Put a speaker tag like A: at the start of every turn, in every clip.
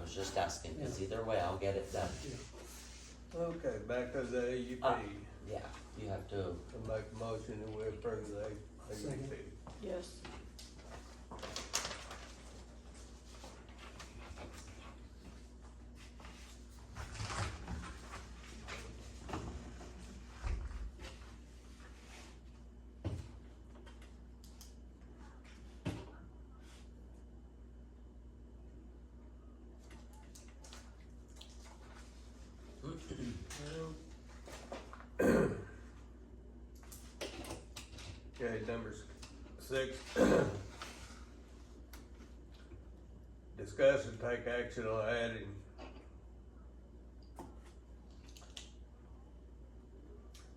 A: was just asking, cause either way, I'll get it done.
B: Okay, back to the E AUP.
A: Uh,
B: I
A: Yeah, you have to,
B: make a motion that we approve the
C: Second.
B: AUP.
D: Yes.
B: Okay, number s- six. Discuss and take action on adding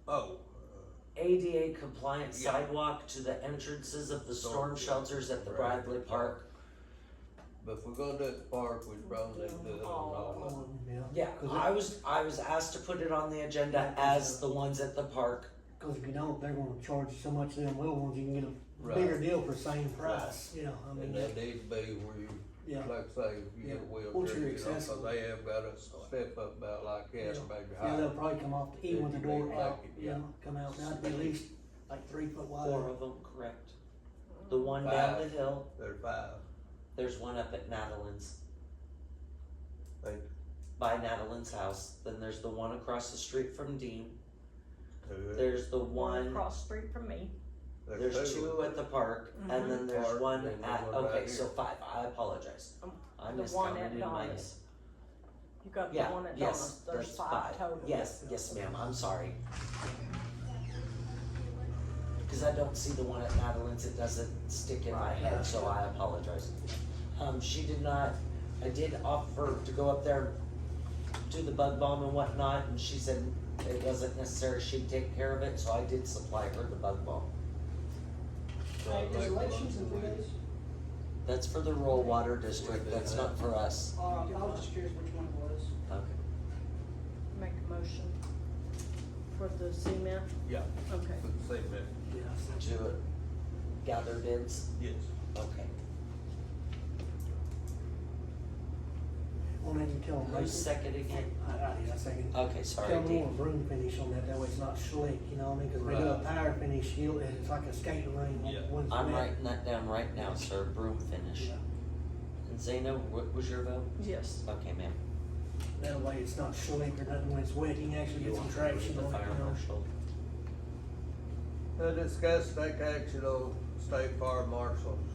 B: Oh,
A: ADA compliant
B: Yeah.
A: sidewalk to the entrances of the storm
B: Storm
A: shelters at the
B: Right.
A: Bradley Park.
B: but if we're gonna do it at the park, we probably need to do it on all of them.
C: Yeah,
A: Yeah, I was, I was asked to put it on the agenda as the ones at the park.
C: cause if you don't, they're gonna charge you so much of them little ones, you can get a
B: Right.
C: bigger deal for the same price, you know, I mean,
B: And they
C: that-
B: need to be where you,
C: yeah.
B: like I say, if you get a
C: Yeah.
B: wheelchair,
C: Once you're
B: you know, 'cause
C: accessible.
B: they have got a step up about like that,
C: Yeah.
B: maybe
C: Yeah, they'll
B: higher.
C: probably come off, even with the
B: Fifty big
C: door out,
B: bucket,
C: you
B: yeah.
C: know, come out, that'd be at least like three foot
A: Four
C: wide.
A: of them, correct. The one down the
B: Five.
A: hill,
B: They're five,
A: there's one up at Natalie's,
B: like
A: by Natalie's house. Then there's the one across the street from Dean.
B: two.
A: There's the one,
D: Across street from me.
A: there's two at the park, and
D: Mm-hmm.
A: then there's
B: Park,
A: one
B: and then
A: at,
B: one right
A: okay, so
B: here.
A: five, I apologize.
D: Um,
A: I
D: the one
A: miscounted
D: at
A: in my head.
D: Donna's. You got the
A: Yeah,
D: one at
A: yes,
D: Donna's,
A: there's five.
D: total.
A: Yes, yes ma'am, I'm sorry. Cause I don't see the one at Madeline's, it doesn't stick in my head, so I apologize. Um, she did not, I did offer to go up there, do the bug bomb and whatnot, and she said it wasn't necessary, she'd take care of it, so I did supply her the bug bomb.
B: So I make a motion we-
A: That's for the rural water district, that's not for us.
E: Uh, I was just curious which one it was.
A: Okay.
D: Make a motion for the cement,
B: Yeah,
D: okay.
B: for the same minute,
C: Yeah, so-
A: To gather bids,
B: yes.
A: okay.
C: Well, then you tell them.
A: Who's second again?
C: I, I, yeah, second.
A: Okay, sorry,
C: Tell them
A: Dean.
C: more broom finish on that, that way it's not slick, you know what I mean, cause we do a
B: Right.
C: tire finish, heel, and it's like a skating ring.
B: Yeah.
C: once
A: I'm
C: wet.
A: writing that down right now, sir, broom finish.
C: Yeah.
A: And Zeno, what was your vote?
D: Yes.
A: Okay, ma'am.
C: That way it's not slick or nothing when it's wet, you can actually get some traction
A: The
C: on it,
A: fire
C: you know.
A: marshal.
B: To Uh, discuss take action on state fire marshal's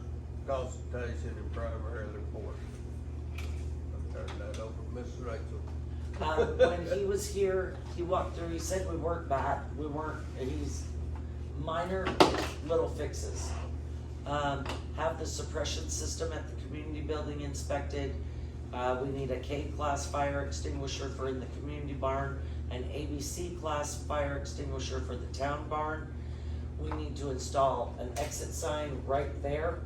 B: consultation and primary report. I'm turning that over to Miss Rachel.
A: Um, when he was here, he walked through, he said we weren't bad, we weren't, he's minor little fixes. Um, have the suppression system at the community building inspected. Uh, we need a K class fire extinguisher for in the community barn, an ABC class fire extinguisher for the town barn. We need to install an exit sign right there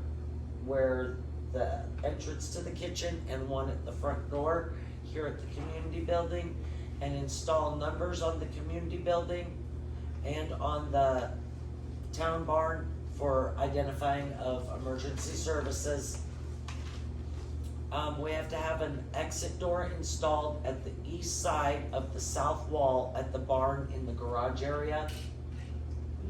A: where the entrance to the kitchen and one at the front door here at the community building and install numbers on the community building and on the town barn for identifying of emergency services. Um, we have to have an exit door installed at the east side of the south wall at the barn in the garage area.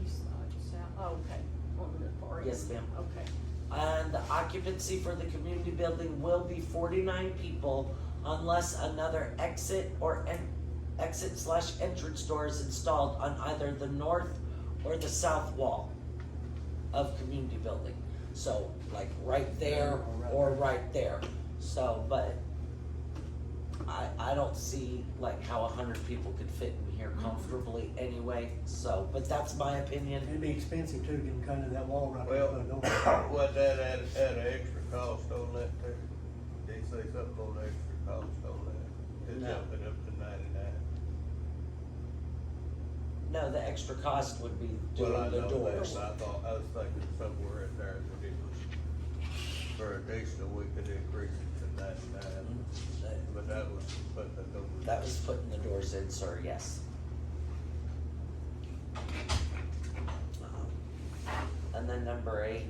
D: East side, south, Oh, okay, on the far end.
A: Yes, ma'am.
D: Okay.
A: And the occupancy for the community building will be forty-nine people unless another exit or en- exit slash entrance door is installed on either the north or the south wall of community building. So like right there or right there, so, but I, I don't see like how a hundred people could fit in here comfortably anyway, so, but that's my opinion.
C: It'd be expensive too, getting kind of that wall right there.
B: Well,
C: put a door.
B: was that at, at an extra cost on that too? They say something on the extra cost on that? It's
A: No.
B: jumping up to ninety-nine.
A: No, the extra cost would be
B: Well, I
A: doing the
B: know that,
A: doors.
B: but I thought, I was thinking somewhere in there that it was, for additional, we could increase it to ninety-nine, but that was, but that was.
A: Mm-hmm. That was putting the doors in, sir, yes. Um, Uh-huh. And then number eight,